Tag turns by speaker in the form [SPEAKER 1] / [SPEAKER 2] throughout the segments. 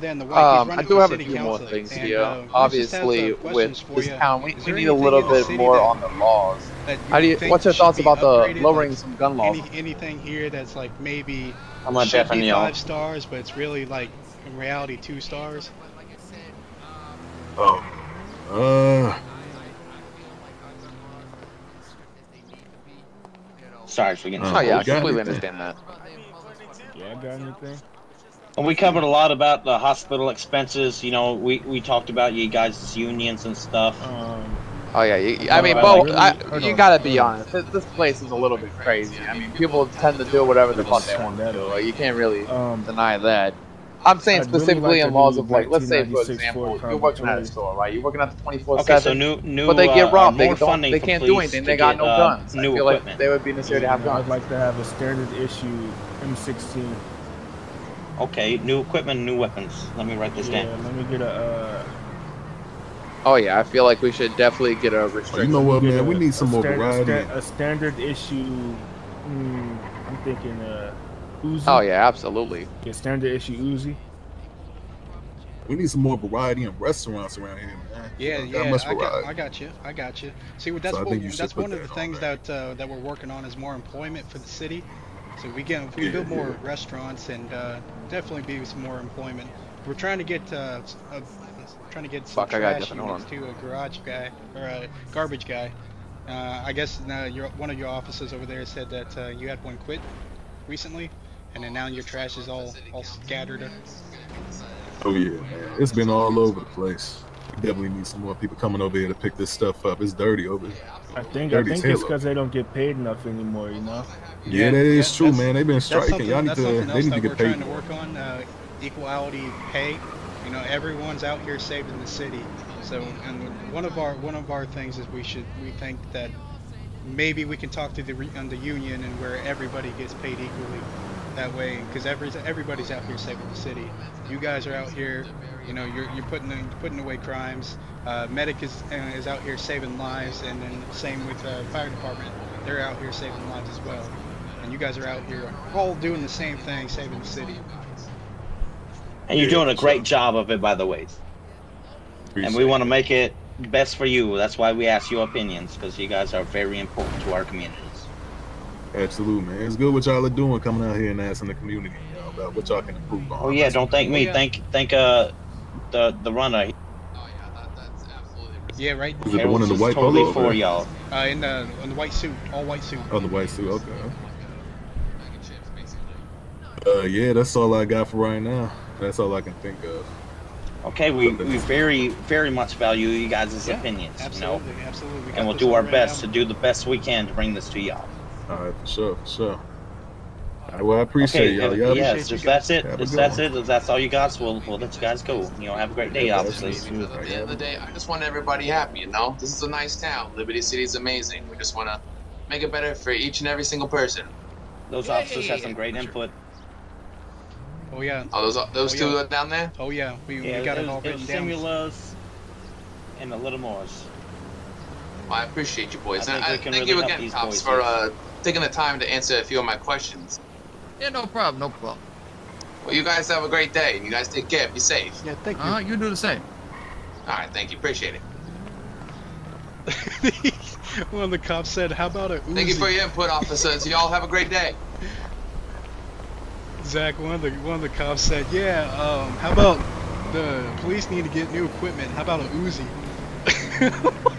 [SPEAKER 1] Then the wife, he's
[SPEAKER 2] Um,
[SPEAKER 1] running
[SPEAKER 2] I
[SPEAKER 1] for
[SPEAKER 2] do have a
[SPEAKER 1] city
[SPEAKER 2] few more
[SPEAKER 1] council,
[SPEAKER 2] things
[SPEAKER 1] and,
[SPEAKER 2] here.
[SPEAKER 1] uh, we just have
[SPEAKER 2] Obviously,
[SPEAKER 1] some questions
[SPEAKER 2] with
[SPEAKER 1] for
[SPEAKER 2] this
[SPEAKER 1] you
[SPEAKER 2] town, we,
[SPEAKER 1] Is
[SPEAKER 2] we
[SPEAKER 1] there
[SPEAKER 2] need a
[SPEAKER 1] anything
[SPEAKER 2] little
[SPEAKER 1] in the
[SPEAKER 2] bit
[SPEAKER 1] city
[SPEAKER 2] more
[SPEAKER 1] that
[SPEAKER 2] on the
[SPEAKER 1] you-
[SPEAKER 2] laws.
[SPEAKER 1] that you
[SPEAKER 2] How do you?
[SPEAKER 1] think
[SPEAKER 2] What's your
[SPEAKER 1] should
[SPEAKER 2] thoughts
[SPEAKER 1] be
[SPEAKER 2] about the
[SPEAKER 1] upgraded,
[SPEAKER 2] lowering
[SPEAKER 1] like,
[SPEAKER 2] some gun laws?
[SPEAKER 1] Any, anything here that's like maybe
[SPEAKER 3] I'm a
[SPEAKER 1] should
[SPEAKER 3] deaf
[SPEAKER 1] be
[SPEAKER 3] and
[SPEAKER 2] uh,
[SPEAKER 1] five stars, but it's really like in reality two stars.
[SPEAKER 4] Oh. Uh.
[SPEAKER 3] Sorry for getting.
[SPEAKER 4] Oh,
[SPEAKER 2] oh yeah, I
[SPEAKER 4] we got
[SPEAKER 2] completely
[SPEAKER 4] it then.
[SPEAKER 2] understand that.
[SPEAKER 5] Yeah, I got anything?
[SPEAKER 3] And we covered a lot about the hospital expenses. You know, we, we talked about you guys' unions and stuff.
[SPEAKER 5] Um,
[SPEAKER 2] Oh yeah, you, I
[SPEAKER 5] No,
[SPEAKER 2] mean,
[SPEAKER 5] I-
[SPEAKER 2] Bo,
[SPEAKER 5] I really-
[SPEAKER 2] I,
[SPEAKER 5] hold
[SPEAKER 2] you
[SPEAKER 5] on,
[SPEAKER 2] gotta be
[SPEAKER 5] hold on.
[SPEAKER 2] honest. This, this place is a little bit crazy. I mean, people tend to do whatever the fuck they want to do. Like, you can't really
[SPEAKER 5] um,
[SPEAKER 2] deny that. I'm saying
[SPEAKER 5] I'd really
[SPEAKER 2] specifically
[SPEAKER 5] like
[SPEAKER 2] in
[SPEAKER 5] to
[SPEAKER 2] laws
[SPEAKER 5] do
[SPEAKER 2] of like, let's say for
[SPEAKER 5] 1996
[SPEAKER 2] example,
[SPEAKER 5] Ford
[SPEAKER 2] you're working at a
[SPEAKER 5] Convoy.
[SPEAKER 2] store, right? You're working at the 24
[SPEAKER 3] Okay, so
[SPEAKER 2] 7.
[SPEAKER 3] new new.
[SPEAKER 2] but they
[SPEAKER 3] uh,
[SPEAKER 2] get robbed. They
[SPEAKER 3] more
[SPEAKER 2] don't.
[SPEAKER 3] funding
[SPEAKER 2] They
[SPEAKER 3] for
[SPEAKER 2] can't do
[SPEAKER 3] police
[SPEAKER 2] anything.
[SPEAKER 3] to
[SPEAKER 2] They got
[SPEAKER 3] get,
[SPEAKER 2] no
[SPEAKER 3] uh,
[SPEAKER 2] guns. I
[SPEAKER 3] New
[SPEAKER 2] feel like
[SPEAKER 3] equipment.
[SPEAKER 2] they would be necessary to have
[SPEAKER 5] you know, I'd
[SPEAKER 2] guns.
[SPEAKER 5] like to have a standard issue M16.
[SPEAKER 3] Okay, new equipment, new weapons. Let me write this
[SPEAKER 5] Yeah,
[SPEAKER 3] down.
[SPEAKER 5] let me get a. Uh,
[SPEAKER 3] Mm-hmm.
[SPEAKER 2] Oh yeah, I feel like we should definitely get a
[SPEAKER 4] oh, You
[SPEAKER 2] restriction.
[SPEAKER 4] know what,
[SPEAKER 5] get
[SPEAKER 4] man?
[SPEAKER 5] a-
[SPEAKER 4] We need some
[SPEAKER 5] a
[SPEAKER 4] more
[SPEAKER 5] standard, a
[SPEAKER 4] variety.
[SPEAKER 5] sta- A standard issue. Mm, I'm thinking uh, Uzi.
[SPEAKER 2] Oh yeah, absolutely.
[SPEAKER 5] Get standard issue Uzi.
[SPEAKER 4] We need some more variety in restaurants around here, man.
[SPEAKER 1] Yeah,
[SPEAKER 4] Not
[SPEAKER 1] yeah,
[SPEAKER 4] That much
[SPEAKER 1] I got,
[SPEAKER 4] variety.
[SPEAKER 1] I got you, I got you. See, what- that's
[SPEAKER 4] So I
[SPEAKER 1] what,
[SPEAKER 4] think you should
[SPEAKER 1] that's
[SPEAKER 4] put
[SPEAKER 1] one of
[SPEAKER 4] that
[SPEAKER 1] the
[SPEAKER 4] on
[SPEAKER 1] things
[SPEAKER 4] there.
[SPEAKER 1] that uh, that we're working on is more employment for the city. So we can if we
[SPEAKER 4] Yeah,
[SPEAKER 1] build more
[SPEAKER 4] yeah.
[SPEAKER 1] restaurants and uh, definitely be some more employment. We're trying to get uh, s- uh, trying to get some
[SPEAKER 2] Fuck, I got
[SPEAKER 1] trash
[SPEAKER 2] nothing, hold
[SPEAKER 1] units to a garage guy or a garbage guy. Uh, I guess uh, your one of your offices over there said that uh, you had one quit recently, and then now your trash is all all scattered.
[SPEAKER 4] Oh yeah, man. It's been all over the place. We definitely need some more people coming over here to pick this stuff up. It's dirty over here.
[SPEAKER 5] I think I
[SPEAKER 4] Dirty
[SPEAKER 5] think it's
[SPEAKER 4] Taylor.
[SPEAKER 5] because they don't get paid enough anymore. You know.
[SPEAKER 4] Yeah,
[SPEAKER 1] Yeah,
[SPEAKER 4] that is
[SPEAKER 1] that-
[SPEAKER 4] true,
[SPEAKER 1] that's-
[SPEAKER 4] man. They've been
[SPEAKER 1] That's
[SPEAKER 4] striking.
[SPEAKER 1] something,
[SPEAKER 4] Y'all need
[SPEAKER 1] that's
[SPEAKER 4] to.
[SPEAKER 1] something
[SPEAKER 4] They
[SPEAKER 1] else
[SPEAKER 4] need to
[SPEAKER 1] that we're
[SPEAKER 4] get paid.
[SPEAKER 1] trying to
[SPEAKER 4] more.
[SPEAKER 1] work on. Uh, equality pay. You know, everyone's out here saving the city. So, and one of our one of our things is we should we think that maybe we can talk to the re- on the union and where everybody gets paid equally. That way, because every everybody's out here saving the city. You guys are out here. You know, you're, you're putting in- putting away crimes. Uh, medic is uh, is out here saving lives, and then same with uh, fire department. They're out here saving lives as well. And you guys are out here all doing the same thing, saving the city.
[SPEAKER 3] And you're
[SPEAKER 4] Yeah,
[SPEAKER 3] doing a
[SPEAKER 4] so-
[SPEAKER 3] great job of it, by the way. And we want to make it best for you. That's why we ask your opinions because you guys are very important to our communities.
[SPEAKER 4] Absolutely, man. It's good what y'all are doing coming out here and asking the community you know, about what y'all can improve on.
[SPEAKER 3] Oh yeah, don't thank me.
[SPEAKER 1] Yeah.
[SPEAKER 3] Thank thank uh the the runner.
[SPEAKER 1] Yeah, right.
[SPEAKER 4] Is it the one in the
[SPEAKER 3] Harold's
[SPEAKER 4] white
[SPEAKER 3] totally
[SPEAKER 4] polo?
[SPEAKER 3] for
[SPEAKER 4] Okay.
[SPEAKER 3] y'all.
[SPEAKER 1] Uh, in the in the white suit, all white suit.
[SPEAKER 4] Oh, the white suit. Okay. Uh, yeah, that's all I got for right now. That's all I can think of.
[SPEAKER 3] Okay, we, we very very much value you guys'
[SPEAKER 1] Yeah,
[SPEAKER 3] opinions. You know?
[SPEAKER 1] Absolutely, absolutely. We got
[SPEAKER 3] and we'll
[SPEAKER 1] this
[SPEAKER 3] do
[SPEAKER 1] one
[SPEAKER 3] our
[SPEAKER 1] written
[SPEAKER 3] best to
[SPEAKER 1] down.
[SPEAKER 3] do the best we can to bring this to y'all.
[SPEAKER 4] All right, for sure, for sure. All right, well, I appreciate y'all.
[SPEAKER 3] if-
[SPEAKER 4] Y'all be-
[SPEAKER 3] yes, if that's it,
[SPEAKER 4] Have a
[SPEAKER 3] if
[SPEAKER 4] good
[SPEAKER 3] that's
[SPEAKER 4] one.
[SPEAKER 3] it, if that's all you got, we'll, we'll let you guys go. You know, have a great day,
[SPEAKER 4] Yeah,
[SPEAKER 3] obviously.
[SPEAKER 4] absolutely.
[SPEAKER 6] Because at the end of the day, I just want everybody happy, you know? This is a nice town. Liberty City is amazing. We just want to make it better for each and every single person.
[SPEAKER 3] Those
[SPEAKER 6] Yeah,
[SPEAKER 3] officers
[SPEAKER 6] yeah,
[SPEAKER 3] have some
[SPEAKER 6] yeah,
[SPEAKER 3] great
[SPEAKER 6] for sure.
[SPEAKER 3] input.
[SPEAKER 1] Oh yeah,
[SPEAKER 6] Oh, those those
[SPEAKER 1] Oh,
[SPEAKER 6] two
[SPEAKER 1] yeah.
[SPEAKER 6] down there?
[SPEAKER 1] oh yeah. We,
[SPEAKER 3] Yeah,
[SPEAKER 1] we got it, all
[SPEAKER 3] was-
[SPEAKER 1] written
[SPEAKER 3] was
[SPEAKER 1] down.
[SPEAKER 3] Simulas and a little more.
[SPEAKER 6] Well, I appreciate you boys.
[SPEAKER 3] I
[SPEAKER 6] and
[SPEAKER 3] think
[SPEAKER 6] I
[SPEAKER 3] we can
[SPEAKER 6] thank
[SPEAKER 3] really
[SPEAKER 6] you
[SPEAKER 3] help
[SPEAKER 6] again,
[SPEAKER 3] these
[SPEAKER 6] Tops,
[SPEAKER 3] boys
[SPEAKER 6] for
[SPEAKER 3] here.
[SPEAKER 6] uh, taking the time to answer a few of my questions.
[SPEAKER 7] Yeah, no problem, no problem.
[SPEAKER 6] Well, you guys have a great day, and you guys take care. Be safe.
[SPEAKER 1] Yeah, thank
[SPEAKER 7] Uh, you do the same.
[SPEAKER 6] All right, thank you. Appreciate it.
[SPEAKER 1] you. One of the cops said, "How about a Uzi?"
[SPEAKER 6] Thank you for your input, officers. you all have a great day.
[SPEAKER 1] Zach, one of the one of the cops said, "Yeah, um, how about the police need to get new equipment? How about a Uzi?"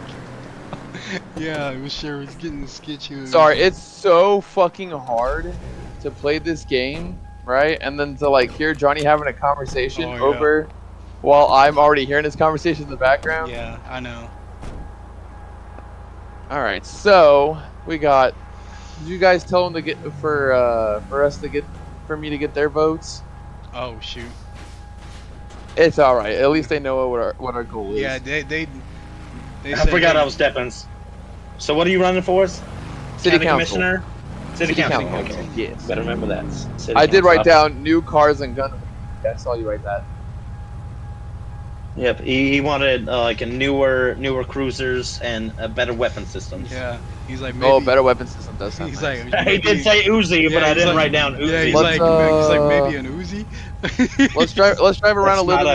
[SPEAKER 1] yeah, it was sure was getting sketchy.
[SPEAKER 2] Sorry, it's so fucking hard to play this game, right? And then to like hear Johnny having a conversation
[SPEAKER 1] Oh, yeah.
[SPEAKER 2] over while I'm already hearing his conversation in the background.
[SPEAKER 1] Yeah, I know.
[SPEAKER 2] All right, so we got. Did you guys tell him to get for uh, for us to get for me to get their votes?
[SPEAKER 1] Oh shoot.
[SPEAKER 2] It's all right. At least they know what our what our goal is.
[SPEAKER 1] Yeah, they they. they
[SPEAKER 3] I
[SPEAKER 1] said
[SPEAKER 3] forgot
[SPEAKER 1] they-
[SPEAKER 3] I was Deppins. So what are you running for us?
[SPEAKER 2] City
[SPEAKER 3] County
[SPEAKER 2] council.
[SPEAKER 3] Commissioner? City,
[SPEAKER 2] City
[SPEAKER 3] Council.
[SPEAKER 2] Council,
[SPEAKER 3] Okay.
[SPEAKER 2] yes.
[SPEAKER 3] Better remember that. City
[SPEAKER 2] I did
[SPEAKER 3] Council.
[SPEAKER 2] write down new cars and guns. I saw you write that.
[SPEAKER 3] Yep, he, he wanted uh, like a newer, newer cruisers and a better weapon systems.
[SPEAKER 1] Yeah, he's like maybe.
[SPEAKER 2] Oh, better weapon system does sound
[SPEAKER 1] He's
[SPEAKER 2] nice.
[SPEAKER 1] like
[SPEAKER 3] he
[SPEAKER 1] maybe-
[SPEAKER 3] did say
[SPEAKER 1] yeah,
[SPEAKER 3] Uzi, but I
[SPEAKER 1] he's
[SPEAKER 3] didn't
[SPEAKER 1] like-
[SPEAKER 3] write down Uzi.
[SPEAKER 1] Yeah, he's
[SPEAKER 2] Let's,
[SPEAKER 1] like, he's like
[SPEAKER 2] uh,
[SPEAKER 1] maybe an Uzi.
[SPEAKER 2] let's drive. Let's drive around
[SPEAKER 3] That's
[SPEAKER 2] a little.
[SPEAKER 3] not